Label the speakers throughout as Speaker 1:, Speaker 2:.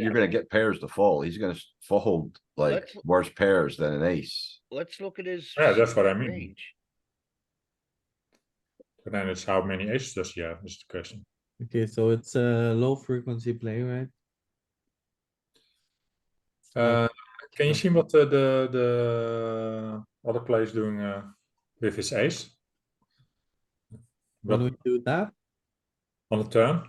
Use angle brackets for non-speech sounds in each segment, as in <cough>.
Speaker 1: you're gonna get pairs to fold. He's gonna s- fold like
Speaker 2: Let's-
Speaker 1: worse pairs than an ace.
Speaker 2: Let's look at his.
Speaker 3: Yeah, that's what I mean.
Speaker 2: range.
Speaker 3: But then it's how many aces does he have is the question.
Speaker 4: Okay, so it's a low frequency play, right?
Speaker 3: Uh, can you see what the the, the other player is doing uh, with his ace?
Speaker 4: When
Speaker 3: But
Speaker 4: we do that,
Speaker 3: on the turn.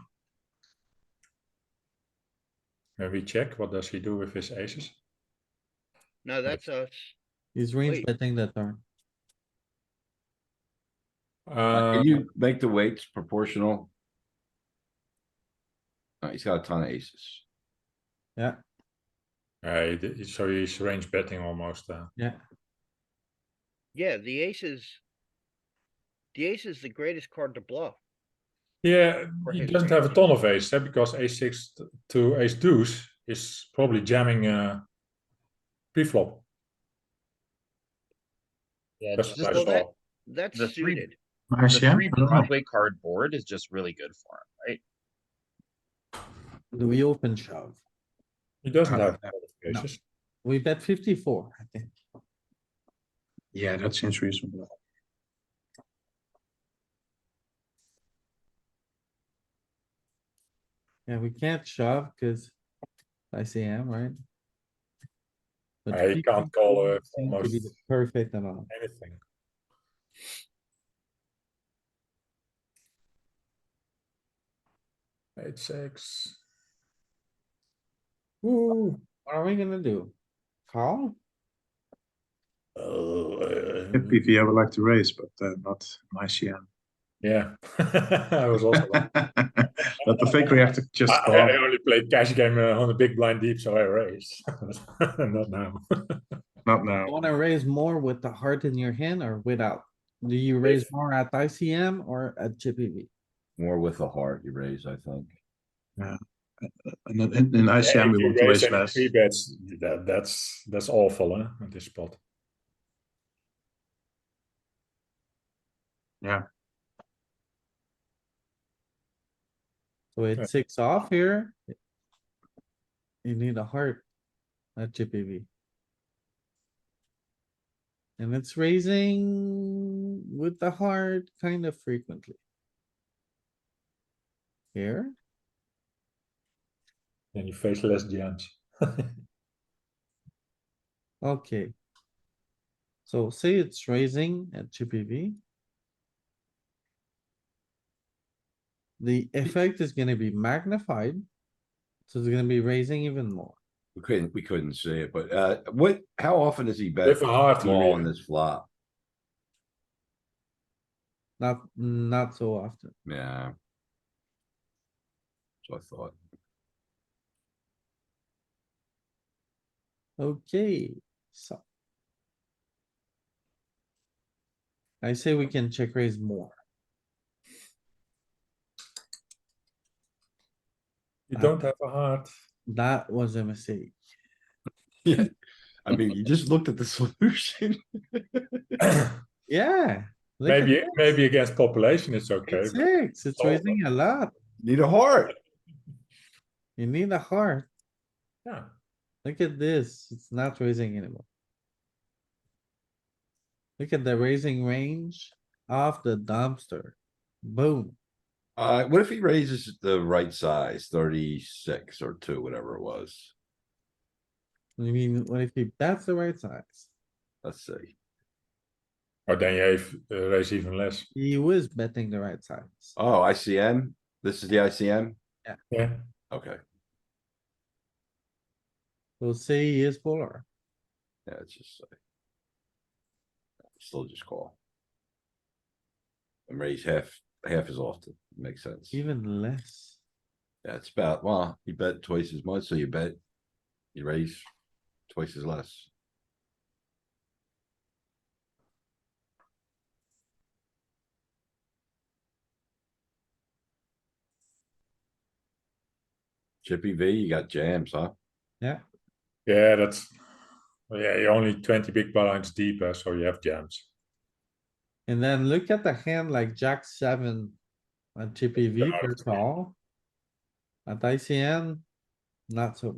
Speaker 3: When we check, what does he do with his aces?
Speaker 2: No, that's us.
Speaker 4: he's range
Speaker 2: Wait.
Speaker 4: betting the turn.
Speaker 3: Uh,
Speaker 1: Ah, Can you make the weights proportional? Uh, he's got a ton of aces.
Speaker 4: Yeah,
Speaker 3: uh, he did- so he's range betting almost. Uh,
Speaker 4: yeah.
Speaker 2: Yeah, the ace is. The ace is the greatest card to bluff.
Speaker 3: yeah,
Speaker 2: Or
Speaker 3: he
Speaker 2: his
Speaker 3: doesn't have a ton of aces eh, because ace six t- to ace deuce is probably jamming uh, pre-flop.
Speaker 5: Yeah,
Speaker 3: That's
Speaker 5: just
Speaker 3: what I
Speaker 2: well,
Speaker 5: the,
Speaker 2: that-
Speaker 3: saw.
Speaker 2: That's
Speaker 5: The three-
Speaker 2: suited.
Speaker 5: the three Broadway card board is just really good for him, right?
Speaker 4: Do we open shove?
Speaker 3: He doesn't
Speaker 6: Uh,
Speaker 1: Ah,
Speaker 3: have a lot of
Speaker 6: no.
Speaker 3: aces.
Speaker 4: We bet fifty-four, I think.
Speaker 6: Yeah, that seems reasonable.
Speaker 4: Yeah, we can't shove cuz ICM, right? But
Speaker 3: Uh, he can't call, uh,
Speaker 4: 54 seems to be
Speaker 3: almost.
Speaker 4: the Perfect amount.
Speaker 3: Anything. Eight six. Woo.
Speaker 4: What are we gonna do? Call?
Speaker 3: Oh, uh,
Speaker 6: In PV, I would like to raise, but uh, not in <laughs> ICM.
Speaker 3: <laughs> yeah, <laughs> I was also. like-
Speaker 6: But I think we have to just
Speaker 3: <laughs> I,
Speaker 6: call.
Speaker 3: I only played cash game uh, on the big blind deep, so I raised. <laughs> Not now. <laughs>
Speaker 6: Not now.
Speaker 4: Wanna raise more with the heart in your hand or without? Do you raise more at ICM or at GPV?
Speaker 1: More with the heart you raise, I think.
Speaker 6: And then in, in ICM, we want to raise less.
Speaker 3: Three bets. That, that's that's awful, huh? At this spot.
Speaker 4: So
Speaker 3: Yeah.
Speaker 4: it's six off here. You need a heart. At GPV. And it's raising with the heart kind of frequently. Here,
Speaker 3: Then you face less jams.
Speaker 4: okay. So say it's raising at GPV. The effect is gonna be magnified. So it's gonna be raising even more.
Speaker 1: We couldn't, we couldn't see it, but, uh, what, how often does he bet
Speaker 3: If a hard
Speaker 1: small on
Speaker 3: really.
Speaker 1: this flop?
Speaker 4: Not, not so often.
Speaker 1: Yeah. So I thought, <laughs>
Speaker 4: Okay, so. I say we can check raise more.
Speaker 3: You don't have a <coughs> heart.
Speaker 4: That was a mistake.
Speaker 1: I mean, you just looked at the <laughs> solution.
Speaker 4: Yeah. look at
Speaker 3: maybe
Speaker 4: that.
Speaker 3: maybe Oh. against population it's okay.
Speaker 4: It's Six, it's
Speaker 3: Solve
Speaker 4: raising a lot.
Speaker 1: Need a heart.
Speaker 4: You need a heart.
Speaker 3: but yeah.
Speaker 4: Look at this. It's not raising anymore. Look at the raising range of the dumpster. Boom.
Speaker 1: Uh, what if he raises the right size, thirty-six or two, whatever it was?
Speaker 4: I mean, what if he, that's the right size?
Speaker 1: Let's see.
Speaker 3: Or then you have, uh, raise even less.
Speaker 4: He was betting the right size.
Speaker 1: Oh, ICM. This is the ICM?
Speaker 3: Yeah.
Speaker 1: Okay,
Speaker 4: So say he is polar.
Speaker 1: yeah, it's just. like- Still just call. And raise half, half as often. Makes sense.
Speaker 4: Even less.
Speaker 1: That's about, well, you bet twice as much, so you bet. You raise twice as less. Chippy V, you got jams, huh?
Speaker 3: Yeah, that's well, yeah, you're only 20 big blinds deeper, so you have jams.
Speaker 4: And then look at the hand like jack seven on GPV per
Speaker 3: it's-
Speaker 4: call. At ICM, not so